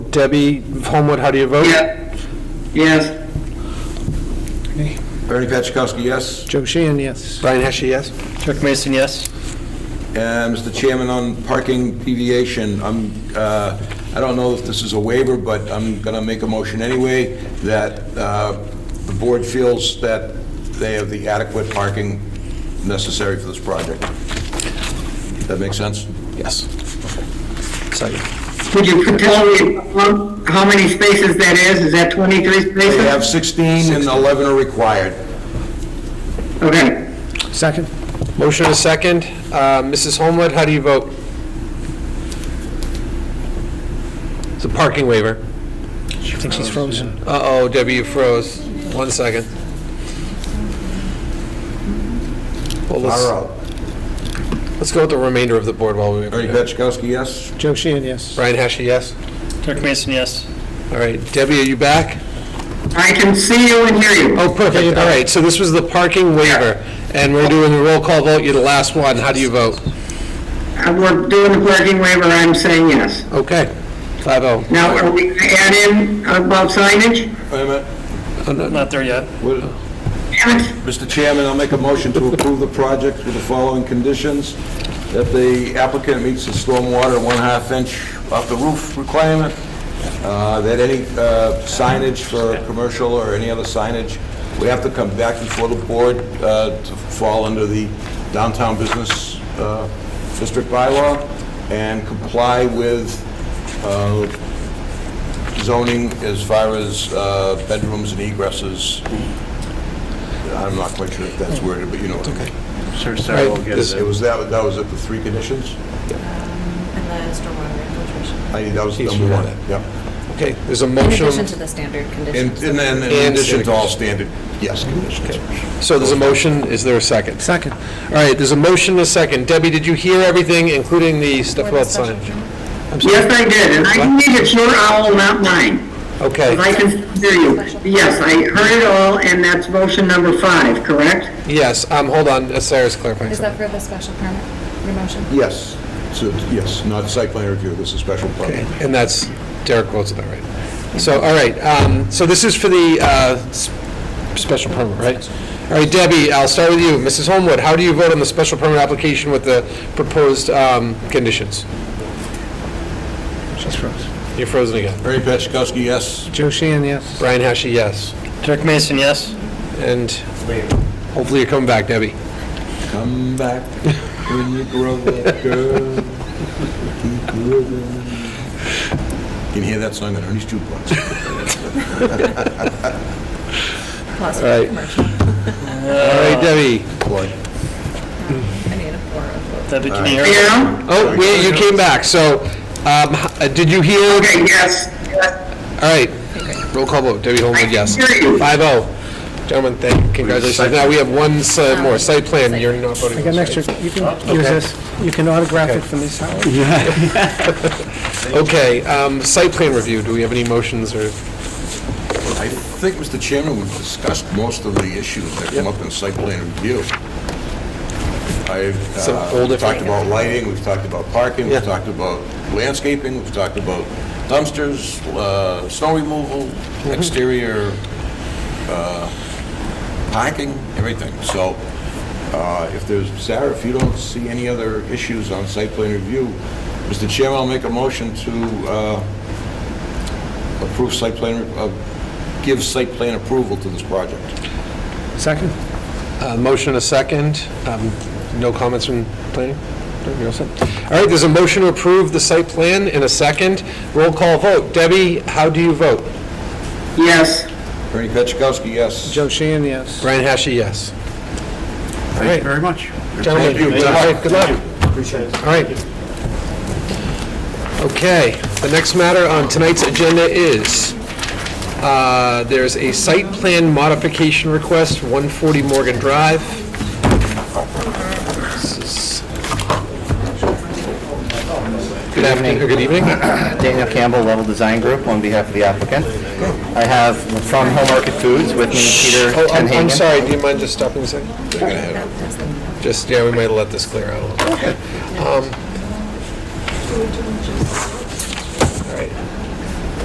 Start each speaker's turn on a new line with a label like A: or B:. A: Debbie Homewood, how do you vote?
B: Yeah. Yes.
C: Bernie Petchakowski, yes.
A: Joe Sheehan, yes. Brian Heskey, yes?
D: Chuck Mason, yes.
C: And Mr. Uh, Chairman, on parking deviation, I'm, uh, I don't know if this is a waiver, but I'm going to make a motion anyway, that uh, the board feels that they have the adequate parking necessary for this project. That make sense?
E: Yes. Second.
B: Could you tell me um, how many spaces that is? Is that 23 spaces?
C: They have 16 and 11 are required.
B: Okay.
A: Second. Motion and a second. Uh, Mrs. Homewood, how do you vote? It's a parking waiver.
D: I think she's frozen.
A: Uh-oh, Debbie, you froze. One second. Well,
C: Far
A: let's,
C: out.
A: let's go with the remainder of the board while we...
C: Bernie Petchakowski, yes.
D: Joe Sheehan, yes.
A: Brian Heskey, yes?
D: Chuck Mason, yes.
A: All right, Debbie, are you back?
B: I can see you and hear you.
A: Oh, perfect, all right, so this was the parking waiver, and we're doing the roll call vote, you're the last one, how do you vote?
B: Uh, We're doing the parking waiver, I'm saying yes.
A: Okay, five oh.
B: Now, are we going to add in about signage?
C: Wait a minute.
A: Uh,
D: Not there yet.
C: What-
B: Damn it.
C: Mr. Chairman, I'll make a motion to approve the project with the following conditions, that the applicant meets the stormwater one-half inch off the roof requirement, uh, that any uh, signage for commercial or any other signage, we have to come back before the board uh, to fall under the downtown business uh, district bylaw and comply with uh, zoning as far as uh, bedrooms and egresses I'm not quite sure if that's worded, but you know what I mean.
F: Sure, Sarah will get
C: This- It
F: it.
C: was that, that was it, the three conditions?
G: And the stormwater infiltration.
C: I, that was
A: Each
C: number
A: one.
C: one, yeah.
A: Okay, there's a
G: In addition
A: motion,
G: to the standard
C: And,
G: conditions.
C: and then in
A: And
C: addition
A: standard
C: to all standard, yes, conditions.
A: so there's a motion, is there a second?
D: Second.
A: All right, there's a motion, and a second. Debbie, did you hear everything, including the stuff
G: For the
A: about
G: special
A: signage?
G: permit.
B: Yes, I did, and I think it's your owl, not mine.
A: Okay,
B: If I can hear you. Yes, I heard it all, and that's motion number five, correct?
A: yes, um, hold on, uh, Sarah's clarifying
G: Is
A: something.
G: that for the special permit, your motion?
C: Yes, so, yes, not site plan review, this is special permit.
A: And that's, Derek quotes that right. So, all right, um, so this is for the, uh, s- special permit, right? All right, Debbie, I'll start with you. Mrs. Homewood, how do you vote on the special permit application with the proposed, um, conditions?
D: She's frozen.
A: You're frozen again.
C: Ernie Petchakowski, yes.
D: Joe Sheehan, yes.
A: Brian Heskey, yes.
D: Chuck Mason, yes.
A: And hopefully you're coming back, Debbie.
C: Come back when you grow up, girl. Keep living. Can you hear that song on Ernie's jukebox?
G: Plus for
A: Right.
G: the commercial.
A: All right,
D: Uh,
A: Debbie.
C: Plug.
G: I need a four of those.
D: Debbie, can you hear?
B: Yeah?
A: Oh, wait, you came back, so, um, h- uh, did you hear?
B: Okay, yes, yes,
A: All right, roll call vote, Debbie
B: I
A: Holman,
B: can
A: yes.
B: hear you.
A: Five oh. Gentlemen, thank, congratulations. Now we have one si- more, site plan, you're not voting.
D: I got an extra, you can use this, you can autograph it from this house.
A: Okay, um, site plan review, do we have any motions or?
C: I think, Mr. Chairman, we've discussed most of the issues that come up in site plan review. I've
A: Some
C: uh,
A: older-
C: talked about lighting, we've talked about parking,
A: Yeah.
C: we've talked about landscaping, we've talked about dumpsters, uh, snow removal, exterior uh, parking, everything. So uh, if there's, Sarah, if you don't see any other issues on site plan review, Mr. Chairman, I'll make a motion to uh, approve site plan, uh, give site plan approval to this project.
D: Second.
A: Uh, Motion and a second. Um, No comments from planning? No, you're all set. All right, there's a motion to approve the site plan in a second. Roll call vote. Debbie, how do you vote?
B: yes.
C: Ernie Petchakowski, yes.
D: Joe Sheehan, yes.
A: Brian Hashi, yes.
F: Thank you very much.
A: Gentlemen,
C: Thank you.
A: all right, good luck. All right. Okay, the next matter on tonight's agenda is, uh, there's a site plan modification request, 140 Morgan Drive. This is- Good afternoon, or good evening.
H: Daniel Campbell, Level Design Group, on behalf of the applicant. I have from Home Market Foods with me Peter
A: Oh, I'm- I'm
H: Tenhagen.
A: sorry, do you mind just stopping a second? Just, yeah, we might let this clear out a little bit. Um,